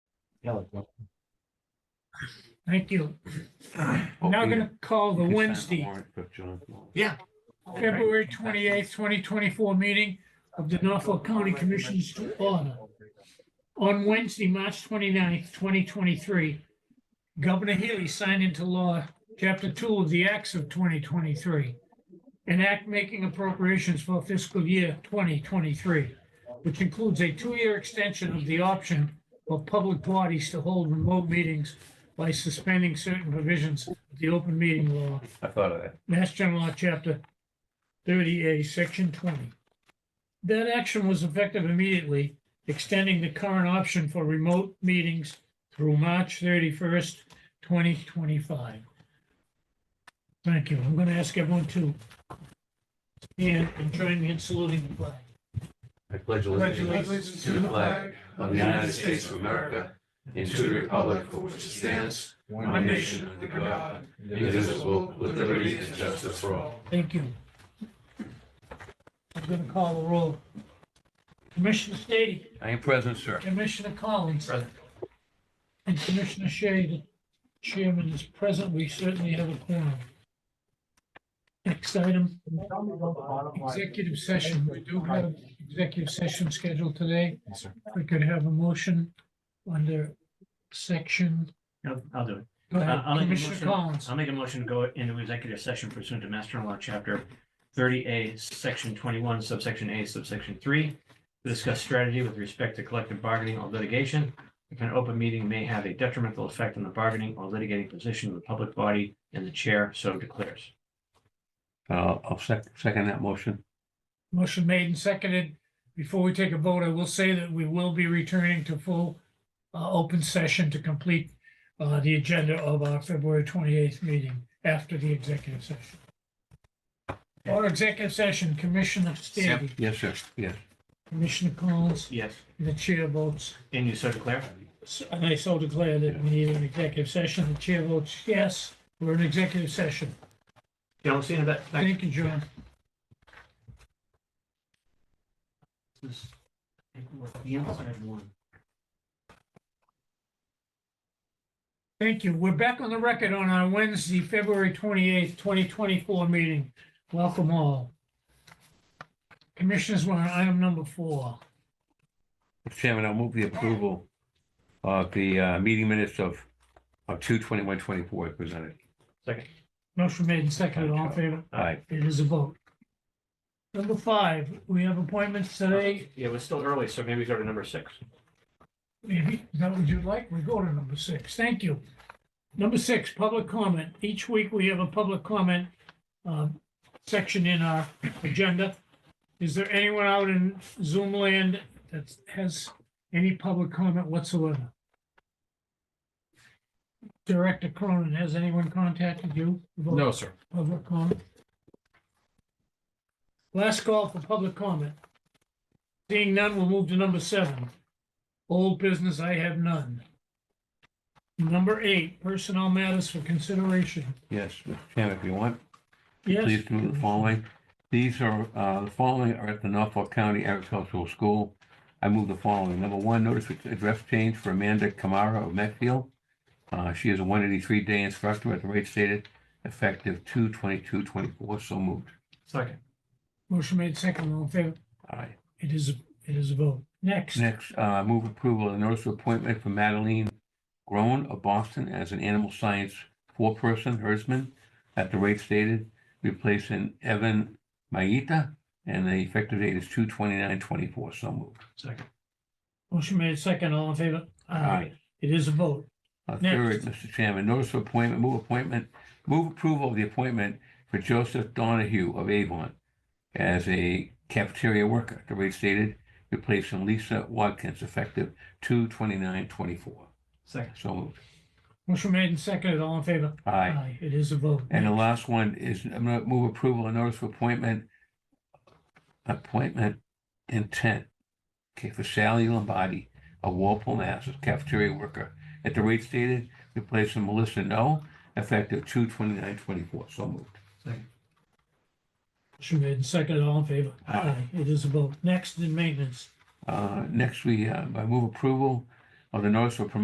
Yeah, like that. Thank you. Now yeah. gonna call the You can sign Wednesday, warrant book, John. Yeah. February twenty-eighth, twenty twenty-four meeting of the Norfolk County Commissioners to order. On Wednesday, March 29th, twenty-three, Governor Healy signed into law Chapter Two of the Acts of twenty twenty-three, an act making appropriations for fiscal year twenty twenty-three, which includes a two-year extension of the option for public parties to hold remote meetings by suspending certain provisions of the open meeting law I thought of that. Mass General Law, Chapter 30A, Section 20. That action was effective immediately, extending the current option for remote meetings through March 31st, 2025. Thank you. I'm going to ask everyone to stand and join me in saluting the flag. I pledge allegiance to the flag of the United States of America and to the republic for which it stands, one nation under God, indivisible, with liberty and justice for all. Thank you. I'm going to call the roll. Commissioner Stady. I am present, sir. Commissioner Collins. And Commissioner Shea, the chairman is present. We certainly have a quorum. Next item, executive session. We do have executive session scheduled today. Yes, sir. We could have a motion under section. No, I'll do it. Go ahead, Uh, I'll make a Commissioner motion. Collins. I'll make a motion to go into executive session pursuant to Master Law, Chapter thirty A, Section twenty-one, subsection A, subsection three, to discuss strategy with respect to collective bargaining or litigation. If an open meeting may have a detrimental effect on the bargaining or litigating position of the public body and the chair so declares. Uh, I'll sec- second that motion. Motion made and seconded. Before we take a vote, I will say that we will be returning to full uh, open session to complete uh, the agenda of our February 28th meeting after the executive session. Our executive session, Commissioner Stady, Yes, sir. Yes. Commissioner Collins, Yes. and the chair votes, And you so declare? so- and I so declare that we need an executive session. The chair votes yes, we're in executive session. Don't see in a bit. Thanks. Thank you, John. This- I think we're at The inside one. Thank you. We're back on the record on our Wednesday, February twenty-eighth, twenty twenty-four meeting. Welcome all. Commissioners, we're on item number four. Chairman, I'll move the approval of the uh, meeting minutes of, of two twenty-one twenty-four presented. Second. Motion made and seconded. All in favor? All right. It is a vote. Number five, we have appointments today. Yeah, it was still early, so maybe go to number six. Maybe, Mm-hmm. is that what you'd like? We go to number six. Thank you. Number six, public comment. Each week we have a public comment um, section in our agenda. Is there anyone out in Zoom land that has any public comment whatsoever? Director Cronin, has anyone contacted you? about No, sir. Public comment? Last call for public comment. Seeing none, we'll move to number seven. Old business, I have none. Number eight, personnel matters for consideration. Yes, Mr. Chairman, if you want. Yes, Please do the following. These are, uh, the following are at the Norfolk County Agricultural School. I move the following. Number one, notice of address change for Amanda Kamara of Medfield. Uh, she is a one eighty-three day instructor at the rate stated, effective two twenty-two twenty-four. So moved. Second. motion made second, all in favor? All right. It is, it is a vote. Next, Next, uh, move approval of the notice of appointment for Madeline Groan of Boston as an animal science four-person herdsman at the rate stated, replacing Evan Maeta, and the effective date is two twenty-nine twenty-four. So moved. Second. motion made second, all in favor? It is a vote. Uh, Next. Third, Mr. Chairman, notice of appointment, move appointment, move approval of the appointment for Joseph Donahue of Avon as a cafeteria worker, the rate stated, replacing Lisa Watkins, effective two twenty-nine twenty-four. Second. So moved. Motion made and seconded, all in favor? Aye. It is a vote. And the last one is I'm gonna move approval of notice of appointment, appointment intent. Okay, for Sally Lombardi, a Walpole, Mass, as cafeteria worker. At the rate stated, replacing Melissa No, effective two twenty-nine twenty-four. So moved. Motion made and seconded, all in favor? Aye. It is a vote. Next, in maintenance. Uh, next, we, uh, I move approval of the notice of promotion